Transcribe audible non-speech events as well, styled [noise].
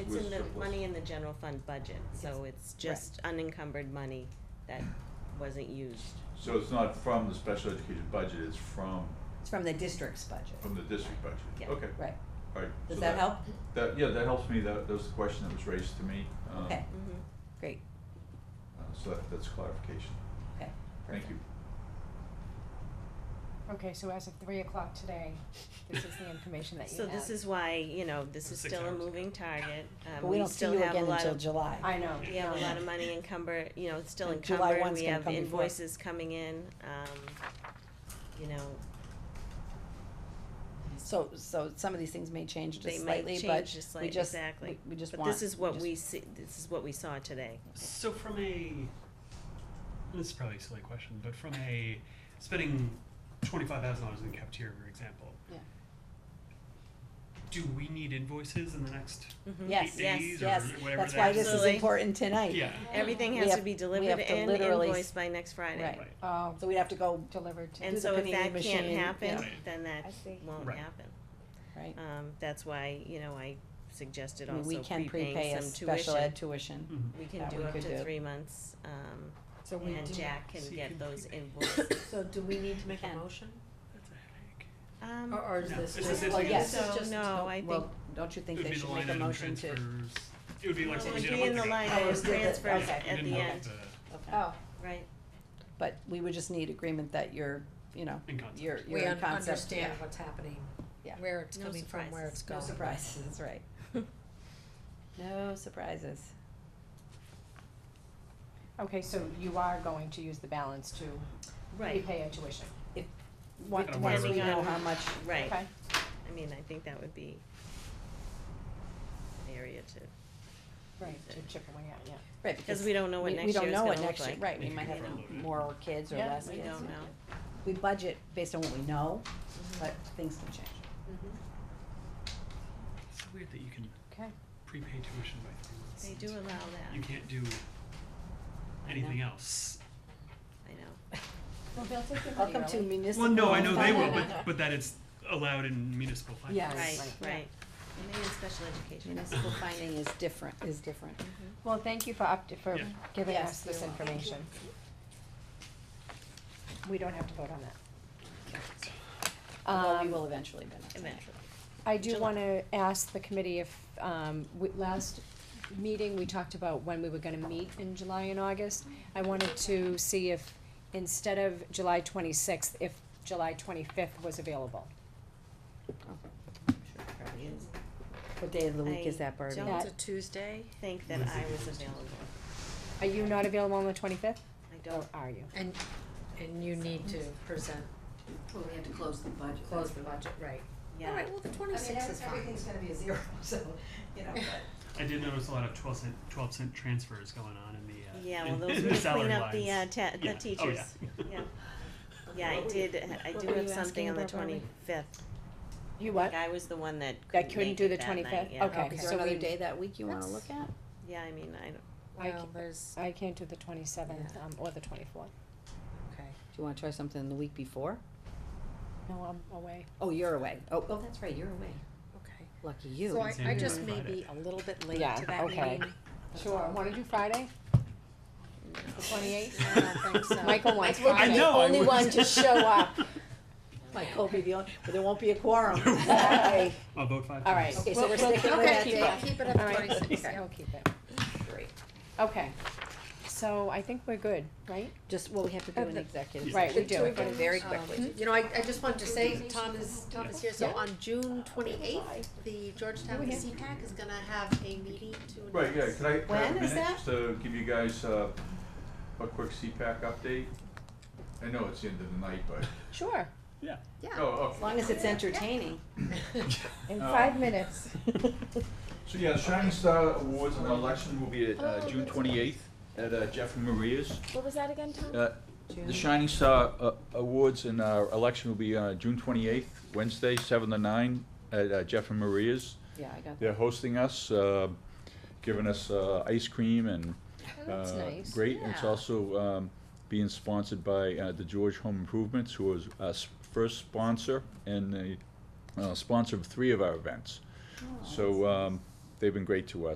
It's was in the, surplus. money in the general fund budget, so it's just unencumbered money that wasn't used. So it's not from the special education budget, it's from, It's from the district's budget, from the district budget? Yeah. Okay, right? all right. Does So that help? That, yeah, that helps me, that, that was the question that was raised to me. um, Okay. Mhm. Great, uh, So that, that's clarification. okay. Thank you. Okay, so as of three o'clock today, this is the information that you So have. this is why, you know, this is Six still a hours. moving target. Um, But we don't see still you have a again lot until of- July. I know. We have a lot of money encumbered, you know, it's still And July encumbered, one's we gonna have come before. invoices coming in, um, you know, So, so some of these things may change they just might slightly, change but just we slightly, just, exactly. we- we just But want. this is what just- we see, this is what we saw today. So from a this is probably a silly question, but from a spending twenty five thousand dollars in the cafeteria, for example. Yeah. Do we need invoices in the next Mhm. Yes, eight yes, days Yes, or whatever that's why that this is Absolutely. important tonight. Yeah. Everything We has to have- be we delivered have to and literally s- invoiced by next Friday. Right. Right. Oh, Um, So we'd have to go, delivered to. And the so if pinning that can't machine, happen, yeah. then that I see. won't Right. happen. right? Um, that's why, you know, I suggested I mean, we also can prepay prepaying a some special tuition. ed tuition. Mhm. We can that do we up could to do. three months, um, So we and do. Jack can So you get can those prepay. invoices. So do we need to make Can. a motion? That's a headache. Um, Or, or is No, it's this just? just- Well, think yes, so, it's just- no, Oh, I think, Well, don't you think it would they be the should line make a item motion to? transfers. It would be well, like it would what we did a be in month the ago. line Oh, item is it the- transfers okay. at We the didn't end, have Okay. Oh, right? But we would just need agreement that you're, you know, the in concept. you're, you're we in un- concept, yeah, understand what's happening, Yeah. where it's No coming from, where surprises. it's no going. surprises, [laughs] that's right. No surprises. Okay, so you are going to use the balance to Right, repay a tuition. Once, Depending once we on- know how much, right, Okay. I mean, I think that would be an area to, Right, to chip away at, yeah. right, because because we don't know what we, next we year don't is know gonna what look next year, like. right, we If might you have front-load it. more kids or Yeah, less We kids. don't Mm-hmm. know. We budget based on what we know, but things can change. Mm-hmm. It's so weird that you can Okay. prepay tuition by three months. They and do allow You that, can't do anything else. I know. Well, they'll take the money Welcome to early. municipal. Well, no, I know they will, finance. but but that it's allowed in municipal finance. Yes. Right, Right, yeah. right. And maybe in special education. Municipal finding is different, is different. Mm-hmm. Well, thank you for up, for Yeah. giving Yes, us this you're welcome. information. We don't have to vote on that. Although we Um, will eventually, but not tonight. Eventually. I do July. wanna ask the committee if, um, we, last meeting, we talked about when we were gonna meet in July and August. I wanted to see if, instead of July twenty-sixth, if July twenty-fifth was available. Sure, probably is. What day of the week is I that, Barbie? don't That- It's a Tuesday? Think that I was available, Are you not available on the twenty-fifth, I or don't, are you? And, and you need to present, Well, we had to close the budget. close the budget, right. yeah. All right, well, the I mean, twenty-sixth is fine. everything's gonna be a zero, [laughs] so, you know, but. I did notice a lot of twelve cent, twelve cent transfers going on in the, uh, Yeah, in- well, those [laughs] in were to the salary clean up the, uh, lines. ta- Yeah. the Oh, teachers, [laughs] yeah. Yeah, I What were did, I do were have you something asking on the about, Barbie? twenty-fifth. You what? I was the one that That couldn't couldn't make do it the that night, 25th? yeah. Okay. Is so there another we- day that week you wanna look at? Yeah, I mean, I don't, I Well, ca- there's, I can't do the twenty-seventh, Yeah. um, or the twenty-fourth. okay. Do you wanna try something the week before? No, I'm away. Oh, you're away. Oh, oh, that's right, you're away. Okay. Lucky you. So I, Same I here just on may Friday. be a little bit late Yeah, to that meeting. okay. That's Sure, all. wanna do Friday? The twenty-eighth? I don't think so. Michael wants Michael- Friday. I know, I Only was- one to show up. Like, hope you the only, but there won't be a [laughs] quorum. Alright. [laughs] I'll vote five times. All right. Okay, so we're sticking with that Okay, keep day. it, keep it at All the right. twenty-sixth, Okay, yeah. I'll keep it. Great. Okay, so I think we're good, right? Just, well, we have to do Oh, an the- executive. Right, we session. do. We're gonna Very Um, quickly. You know, I, I just wanted to say, Tom is, Tom is here, so on June twenty-eighth, the Georgetown Okay. CPAC is gonna have a meeting to announce. Right, yeah, can I When grab a is minute that? just to give you guys uh, a quick CPAC update? I know it's the end of the night, [laughs] but, Sure, Yeah. Yeah. oh, As okay. long as it's entertaining. in Uh, five minutes. So, yeah, the Shining Star Awards and election will be at uh, June twenty-eighth at uh, Jeff and Maria's. Oh, What was that again, Tom? Uh, The Shining Star uh, Awards and uh, election will be uh, June twenty-eighth, Wednesday, seven to nine, at uh, Jeff and Maria's. Yeah, I got that. They're hosting us, uh, giving us uh, ice cream and Oh, that's uh, nice. great. And It's Yeah. also um, being sponsored by uh, the George Home Improvements, who was our s- first sponsor and Oh, the uh, sponsor of three of our events. So um, they've been great to us.